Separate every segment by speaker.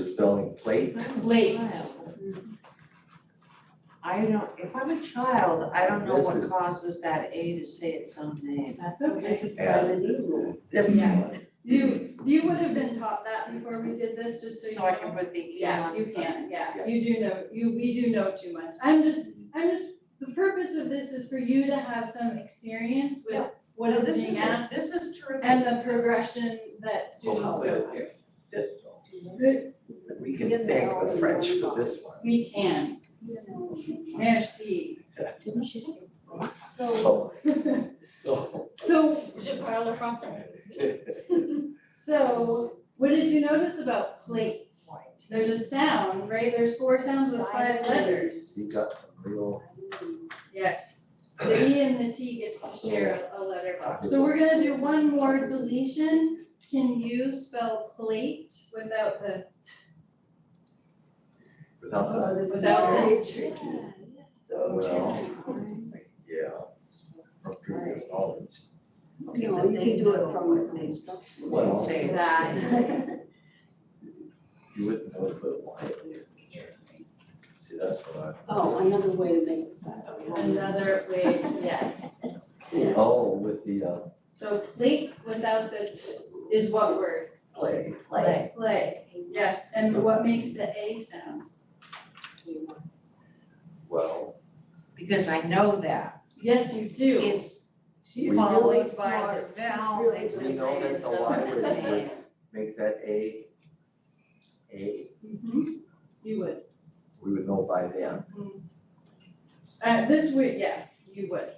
Speaker 1: spelling plate.
Speaker 2: Late.
Speaker 3: I don't, if I'm a child, I don't know
Speaker 1: This
Speaker 3: what
Speaker 1: is-
Speaker 3: causes that A to say its own name.
Speaker 2: That's okay.
Speaker 4: This is kind of new rule.
Speaker 2: This one. You, you would have been taught that before we did this, just so you know.
Speaker 3: So I can put the E
Speaker 2: Yeah,
Speaker 3: on.
Speaker 2: you can, yeah,
Speaker 1: Yeah.
Speaker 2: you do know, you, we do know too much. I'm just, I'm just, the purpose of this is for you to have some experience with
Speaker 3: Yeah.
Speaker 2: what
Speaker 3: No,
Speaker 2: is
Speaker 3: this
Speaker 2: being
Speaker 3: is-
Speaker 2: asked
Speaker 3: This is terrific.
Speaker 2: E and the progression that students go through. Good,
Speaker 1: We can thank the French for this one.
Speaker 2: we can, merci.
Speaker 4: Didn't she say?
Speaker 1: So, so.
Speaker 2: So,
Speaker 4: Je parle français.
Speaker 2: so what did you notice about plates? There's a sound, right? There's four sounds with five letters.
Speaker 1: You got some real,
Speaker 2: Yes, the E and the T get to share a a letter box. So we're gonna do one more deletion. Can you spell plate without the,
Speaker 1: without that,
Speaker 4: Oh, this
Speaker 2: Without
Speaker 4: very tricky. So
Speaker 1: Well.
Speaker 4: tricky.
Speaker 1: yeah, from previous knowledge.
Speaker 3: Okay,
Speaker 4: No,
Speaker 3: but
Speaker 4: you
Speaker 3: they
Speaker 4: can do it
Speaker 3: know
Speaker 4: from
Speaker 3: what
Speaker 4: an
Speaker 3: they
Speaker 4: instruction.
Speaker 1: Well,
Speaker 3: say.
Speaker 2: That.
Speaker 1: You wouldn't know to put a line in there. See, that's what
Speaker 4: Oh, another way to make that.
Speaker 3: Oh,
Speaker 4: okay.
Speaker 2: another way, yes.
Speaker 1: I, oh, with the uh
Speaker 2: So plate without the t is what word?
Speaker 1: play,
Speaker 4: Like,
Speaker 2: Play, yes, and what makes the A sound?
Speaker 1: well,
Speaker 3: Because I know that.
Speaker 2: Yes, you do.
Speaker 3: It's
Speaker 1: We
Speaker 4: She's really
Speaker 3: followed by the
Speaker 4: smart. She's
Speaker 3: vowel,
Speaker 4: really
Speaker 3: makes
Speaker 1: We
Speaker 3: it
Speaker 4: smart.
Speaker 1: know
Speaker 3: say
Speaker 1: that
Speaker 3: its
Speaker 1: the
Speaker 3: own
Speaker 1: library would-
Speaker 3: name.
Speaker 1: make that A, A,
Speaker 2: Mhm. You would.
Speaker 1: we would know by then.
Speaker 2: Uh, this would, yeah, you would.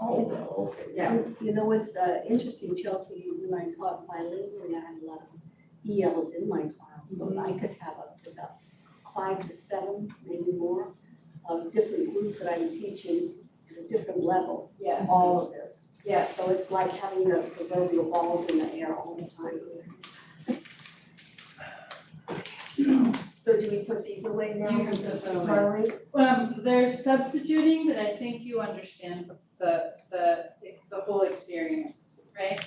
Speaker 1: Oh, well, okay.
Speaker 2: Yeah.
Speaker 4: You- You know, what's uh, interesting, Chelsea, when I taught bilingual, I had a lot of ELs in my class, so
Speaker 3: Mm-hmm.
Speaker 4: I could have up to about s- five to seven, maybe more, of different groups that I'm teaching at a different level,
Speaker 2: Yes.
Speaker 4: all of this.
Speaker 2: Yes.
Speaker 4: So it's like having the proverbial balls in the air all the time. So do we put these away now?
Speaker 2: You can put them away. Um, they're substituting, but I think you understand the, the, the whole experience, right?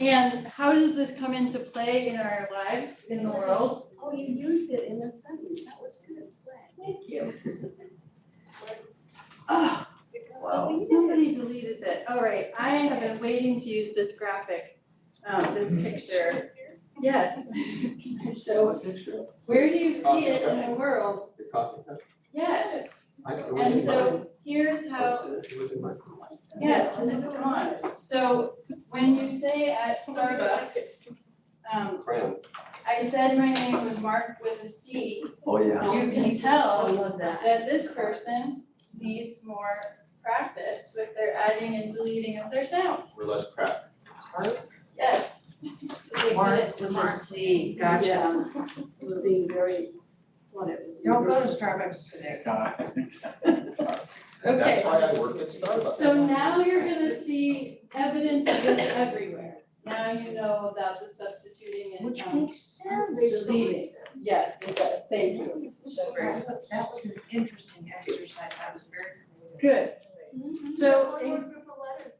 Speaker 2: And how does this come into play in our lives, in the world?
Speaker 4: Oh, you used it in a sentence, that was good,
Speaker 2: Thank you.
Speaker 3: Oh,
Speaker 1: Wow.
Speaker 2: Somebody deleted it. All right, I have been waiting to use this graphic, um, this
Speaker 5: Mm-hmm.
Speaker 2: picture. Yes. Can I show-
Speaker 5: picture,
Speaker 2: Where do you see it in the world?
Speaker 5: the coffee cup.
Speaker 2: Yes.
Speaker 5: I- it was
Speaker 2: And
Speaker 5: in my-
Speaker 2: so here's how
Speaker 5: It was in my.
Speaker 2: Yes, and it's gone. So when you say at Starbucks, um,
Speaker 5: Brown.
Speaker 2: I said my name was marked with a C,
Speaker 1: Oh, yeah.
Speaker 2: you can tell
Speaker 4: love that.
Speaker 2: that this person needs more practice with their adding and deleting of their sounds.
Speaker 5: We're less crap.
Speaker 2: Yes. They
Speaker 3: Mark
Speaker 2: get
Speaker 3: with a
Speaker 2: marked.
Speaker 3: C, gotcha.
Speaker 4: Yeah. It was being very, what it was.
Speaker 3: Don't go to Starbucks today.
Speaker 5: And that's
Speaker 2: Okay.
Speaker 5: why I work at Starbucks.
Speaker 2: So now you're gonna see evidence of this everywhere. Now you know about the substituting and,
Speaker 3: Which
Speaker 2: um,
Speaker 3: makes sense.
Speaker 2: deleting. Yes, it does, thank you, Mrs. Shepherd.
Speaker 3: That was- that was an interesting exercise. I was very.
Speaker 2: Good, So-
Speaker 6: One more Mm-hmm. group of letters.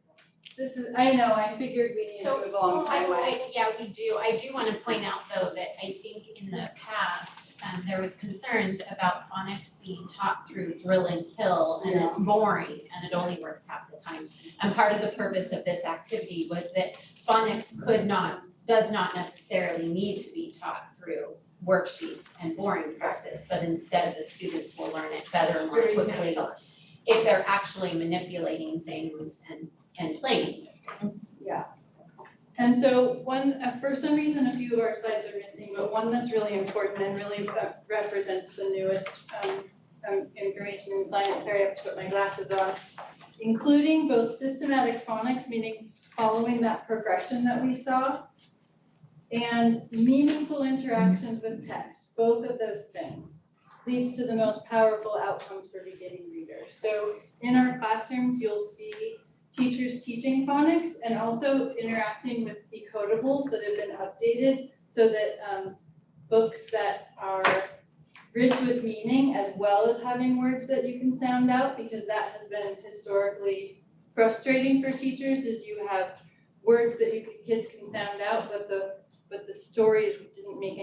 Speaker 2: This is, I know, I figured we needed to
Speaker 6: So- oh,
Speaker 2: move along
Speaker 6: I-
Speaker 2: highway.
Speaker 6: I- Yeah, we do. I do want to point out though that I think in the past, um, there was concerns about phonics being taught through drill and kill and it's boring and it only works half the time. And part of the purpose of this activity was that phonics could not, does not necessarily need to be taught through worksheets and boring practice, but instead the students will learn it better and more quickly if they're actually manipulating things and, and playing.
Speaker 2: And so one, uh, for some reason, a few of our slides are missing, but one that's really important and really uh, represents the newest um, um, information in science, sorry, I have to put my glasses on. Including both systematic phonics, meaning following that progression that we saw, and meaningful interactions with text, both of those things leads to the most powerful outcomes for beginning readers. So in our classrooms, you'll see teachers teaching phonics and also interacting with decodables that have been updated so that um, books that are rich with meaning as well as having words that you can sound out because that has been historically frustrating for teachers is you have words that you kids can sound out but the but the stories didn't make any